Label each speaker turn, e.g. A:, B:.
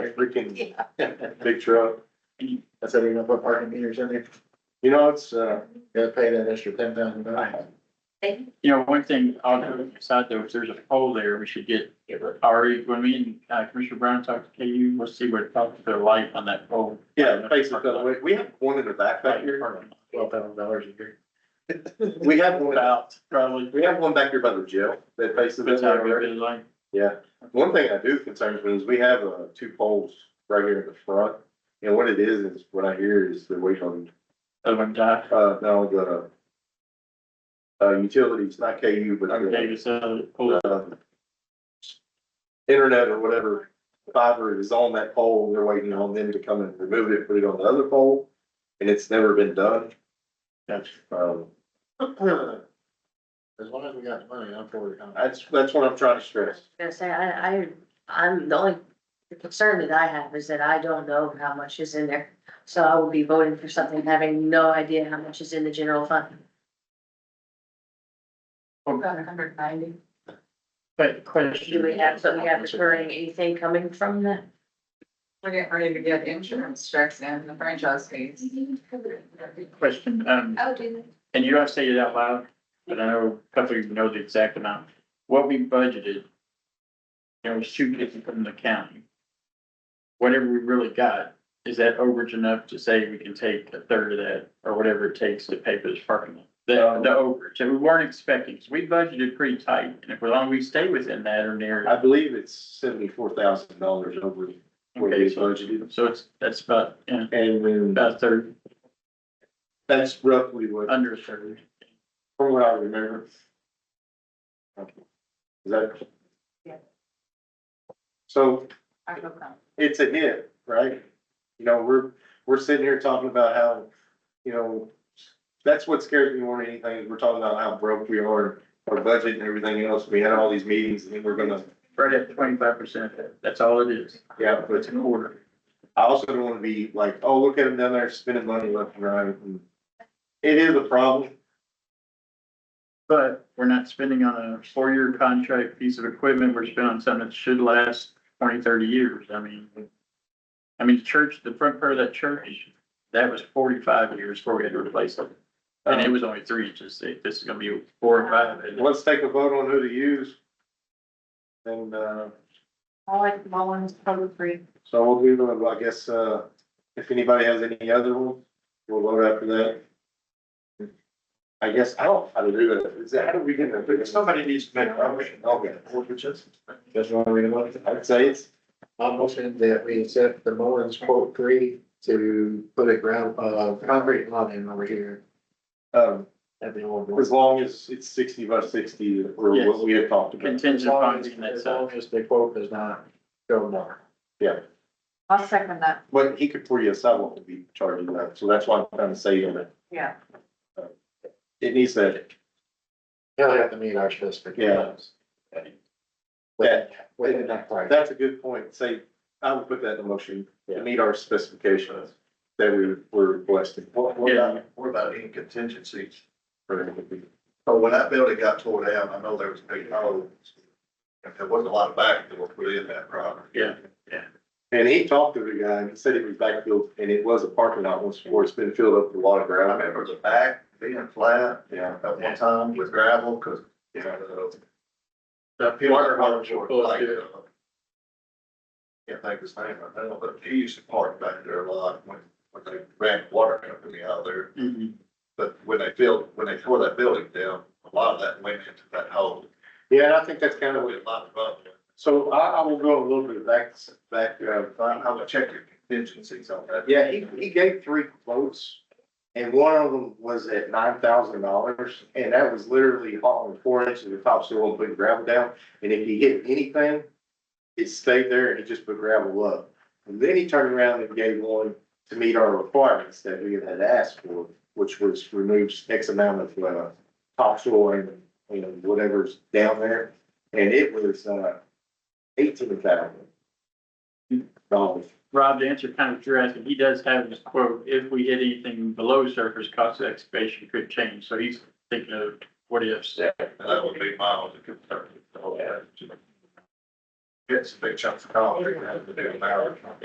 A: freaking
B: Yeah.
A: big truck.
C: That's how you're gonna put parking meters in there,
A: You know, it's, uh,
C: you gotta pay that extra ten thousand dollars.
D: You know, one thing I'll throw this out there, if there's a poll there, we should get, Ari, when me and uh, Commissioner Brown talked to KU, let's see what talked their light on that poll.
A: yeah, basically, we- we have one in the back back here.
C: Twelve thousand dollars a year.
A: We have one,
D: About, probably.
A: we have one back here by the jail that faces
D: That's
A: it
D: how we
A: already.
D: did light.
A: Yeah, one thing I do concerns me is we have, uh, two poles right here in the front. And what it is, is what I hear is they're waiting on
D: Other one died.
A: Uh, no, the, uh, utilities, not KU, but
D: Dr.
A: the,
D: Davis, uh, poll.
A: um, internet or whatever fiber is on that pole, they're waiting on them to come and remove it, put it on the other pole, and it's never been done,
D: That's-
A: um,
C: As long as we got the money, I'm for it.
A: that's, that's what I'm trying to stress.
B: Gonna say, I, I, I'm, the only concern that I have is that I don't know how much is in there. So I will be voting for something having no idea how much is in the general fund.
E: About hundred ninety.
D: But question.
B: Do we have, so we have recurring, anything coming from that?
E: We're getting ready to get insurance checks and the franchise fees.
D: Question, um,
E: Oh, do
D: and you don't say it out loud, but I know a couple of you know the exact amount. What we budgeted, there was two different from the county. Whatever we really got, is that overage enough to say we can take a third of that or whatever it takes to pay for this parking lot? The,
A: Uh,
D: the overage, and we weren't expecting, because we budgeted pretty tight, and if as long as we stay within that or near.
A: I believe it's seventy-four thousand dollars over, what
D: Okay,
A: we
D: so-
A: budgeted.
D: So it's, that's about, yeah,
A: and then
D: about a third,
A: that's roughly what,
D: under a third.
A: from what I remember. Okay. Is that?
E: Yeah.
A: So
E: I hope not.
A: it's a hit, right? You know, we're, we're sitting here talking about how, you know, that's what scares me more than anything, is we're talking about how broke we are, our budget and everything else, we had all these meetings, and then we're gonna,
D: Right at twenty-five percent, that's all it is.
A: yeah, but
D: It's an order.
A: I also don't wanna be like, oh, look at them down there spending money left and right. and It is a problem,
D: But we're not spending on a four-year contract piece of equipment, we're spending on something that should last 20, 30 years, I mean. I mean, the church, the front part of that church, that was forty-five years before we had to replace it, and it
A: Um,
D: was only three inches thick, this is gonna be four or five. and-
A: let's take a vote on who to use. And, uh,
E: I like Mullins, probably three.
A: so we'll do, uh, I guess, uh, if anybody has any other one, we'll vote after that. I guess, I don't know how to do that. Is that, how do we get that? Somebody needs to make a motion. Okay.
C: That's why we want,
A: I'd say it's,
C: I'm motion that we accept the Mullins quote three to put a ground, uh, concrete lot in over here.
A: um,
C: That'd be one.
A: as long as it's sixty by sixty or
D: Yes.
A: what we had talked about.
D: Contingent on getting that
C: As
D: stuff.
C: long as the quote does not go more.
E: I'll second that,
A: But he could pour you a sidewalk to be charging that. So that's why I'm trying to say that
E: yeah.
A: it needs that,
C: He'll have to meet our specifications.
A: Yeah.
C: Within that part.
A: that's a good point. Say, I would put that in motion to meet our specifications that we were requesting.
F: What, what about, what about any contingencies? So when that building got tore down, I know there was big holes. And there wasn't a lot of back that were put in that property.
D: Yeah.
A: And he talked to the guy and he said it was backfield and it was a parking lot once before. It's been filled up with a lot of
F: I
A: gravel.
F: remember the back being flat
A: Yeah.
F: at one time with gravel, cause, you know,
D: The
F: the.
D: water
F: hard
D: hose will pull
F: like,
D: it through.
F: uh, Can't think of his name right now, but he used to park back there a lot when, when they ran the water company out there.
D: Mhm.
F: But when they filled, when they tore that building down, a lot of that went into that hole.
A: Yeah, and I think that's kind
F: There
A: of
F: was
A: what,
F: a lot of bubble.
A: so I, I will go a little bit back, back, uh,
F: I'm, I'm gonna check your contingencies on that.
A: yeah, he, he gave three quotes. And one of them was at nine thousand dollars and that was literally hauling four inches of topsoil and putting gravel down. And if he hit anything, it stayed there and he just put gravel up. And then he turned around and gave one to meet our requirements that we had asked for, which was removes X amount of, uh, topsoil and, you know, whatever's down there. And it was, uh, eighteen thousand dollars.
D: Rob, to answer kind of what you're asking, he does have this quote, if we hit anything below surface, cost of excavation could change, so he's thinking of what ifs.
F: And Uh, that would be miles of concern. It's a big chunk of concrete, that had to do an hour.